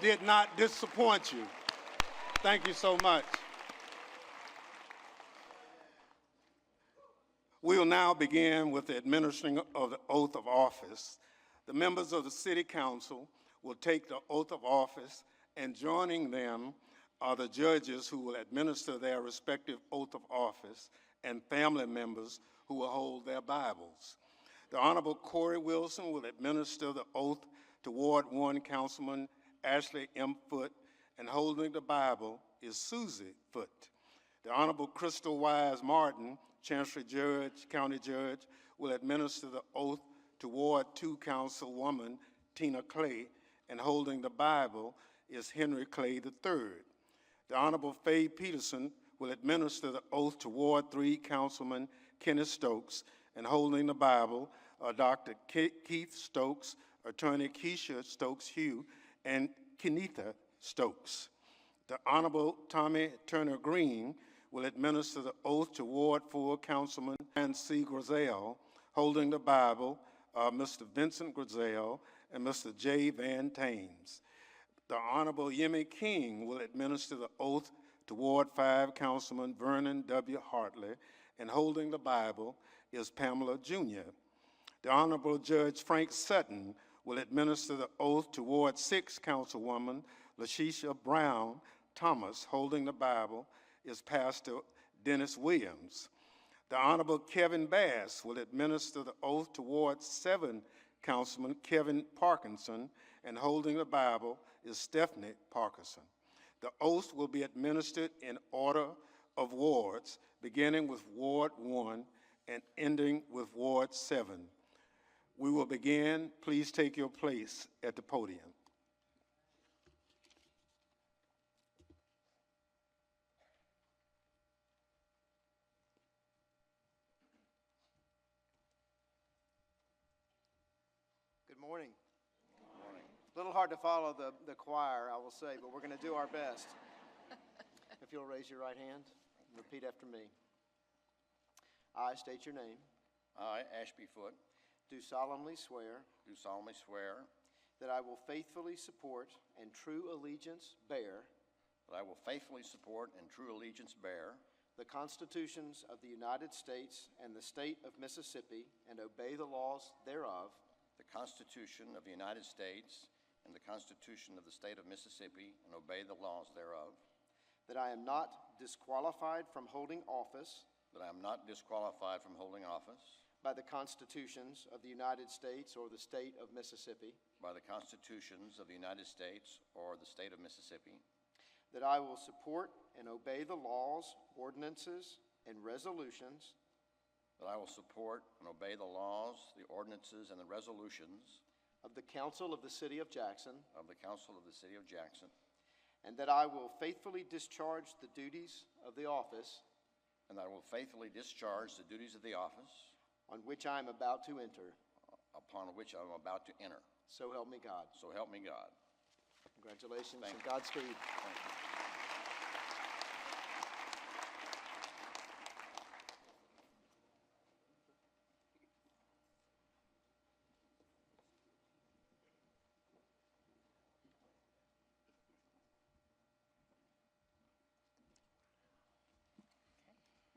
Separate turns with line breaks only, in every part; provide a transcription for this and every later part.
did not disappoint you. Thank you so much. We will now begin with the administering of the oath of office. The members of the City Council will take the oath of office, and joining them are the judges who will administer their respective oath of office and family members who will hold their Bibles. The Honorable Corey Wilson will administer the oath to Ward One Councilman Ashley M. Foote, and holding the Bible is Susie Foote. The Honorable Crystal Wise Martin, Chancery Judge, County Judge, will administer the oath to Ward Two Councilwoman Tina Clay, and holding the Bible is Henry Clay III. The Honorable Faye Peterson will administer the oath to Ward Three Councilman Kenneth Stokes, and holding the Bible are Dr. Ke- Keith Stokes, Attorney Keisha Stokes Hugh, and Kenitha Stokes. The Honorable Tommy Turner Green will administer the oath to Ward Four Councilman Nancy Grizel, holding the Bible, uh, Mr. Vincent Grizel and Mr. J. Van Tames. The Honorable Yemi King will administer the oath to Ward Five Councilman Vernon W. Hartley, and holding the Bible is Pamela Junior. The Honorable Judge Frank Sutton will administer the oath to Ward Six Councilwoman LaShisha Brown Thomas. Holding the Bible is Pastor Dennis Williams. The Honorable Kevin Bass will administer the oath to Ward Seven Councilman Kevin Parkinson, and holding the Bible is Stephanie Parkinson. The oath will be administered in order of wards, beginning with Ward One and ending with Ward Seven. We will begin. Please take your place at the podium.
Good morning. Good morning. A little hard to follow the, the choir, I will say, but we're going to do our best. if you'll raise your right hand and repeat after me. I state your name,
I, Ashby Foote,
do solemnly swear
do solemnly swear
that I will faithfully support and true allegiance bear
that I will faithfully support and true allegiance bear
the constitutions of the United States and the state of Mississippi and obey the laws thereof,
the Constitution of the United States and the Constitution of the State of Mississippi and obey the laws thereof,
that I am not disqualified from holding office
that I am not disqualified from holding office
by the constitutions of the United States or the state of Mississippi,
by the Constitutions of the United States or the State of Mississippi,
that I will support and obey the laws, ordinances, and resolutions
that I will support and obey the laws, the ordinances, and the resolutions
of the Council of the City of Jackson,
of the Council of the City of Jackson,
and that I will faithfully discharge the duties of the office
and that I will faithfully discharge the duties of the office
on which I am about to enter.
upon which I am about to enter.
So help me God.
So help me God.
Congratulations
Thank
and
you.
Godspeed.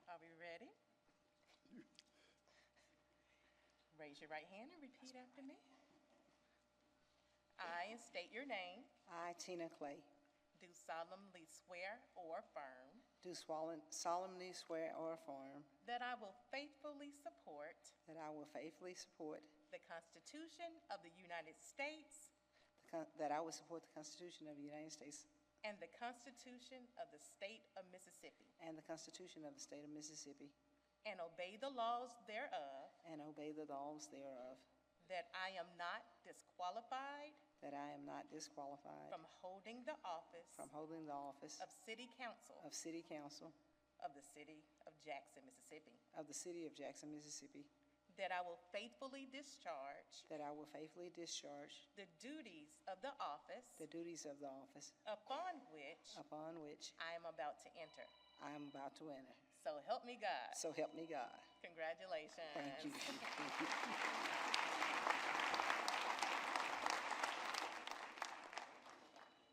Are we ready? Raise your right hand and repeat after me. I, and state your name,
I, Tina Clay,
do solemnly swear or affirm
do swallen- solemnly swear or affirm
that I will faithfully support
that I will faithfully support,
the Constitution of the United States
the Con- that I will support the Constitution of the United States
and the Constitution of the State of Mississippi,
and the Constitution of the State of Mississippi,
and obey the laws thereof,
and obey the laws thereof,
that I am not disqualified
that I am not disqualified
from holding the office
from holding the office
of City Council
of City Council
of the City of Jackson, Mississippi.
of the City of Jackson, Mississippi,
That I will faithfully discharge
that I will faithfully discharge
the duties of the office
the Oh. duties of the office
upon which
upon which
I am about to enter.
I am about to enter.
So help me God.
So help me God.
Congratulations.
Thank you.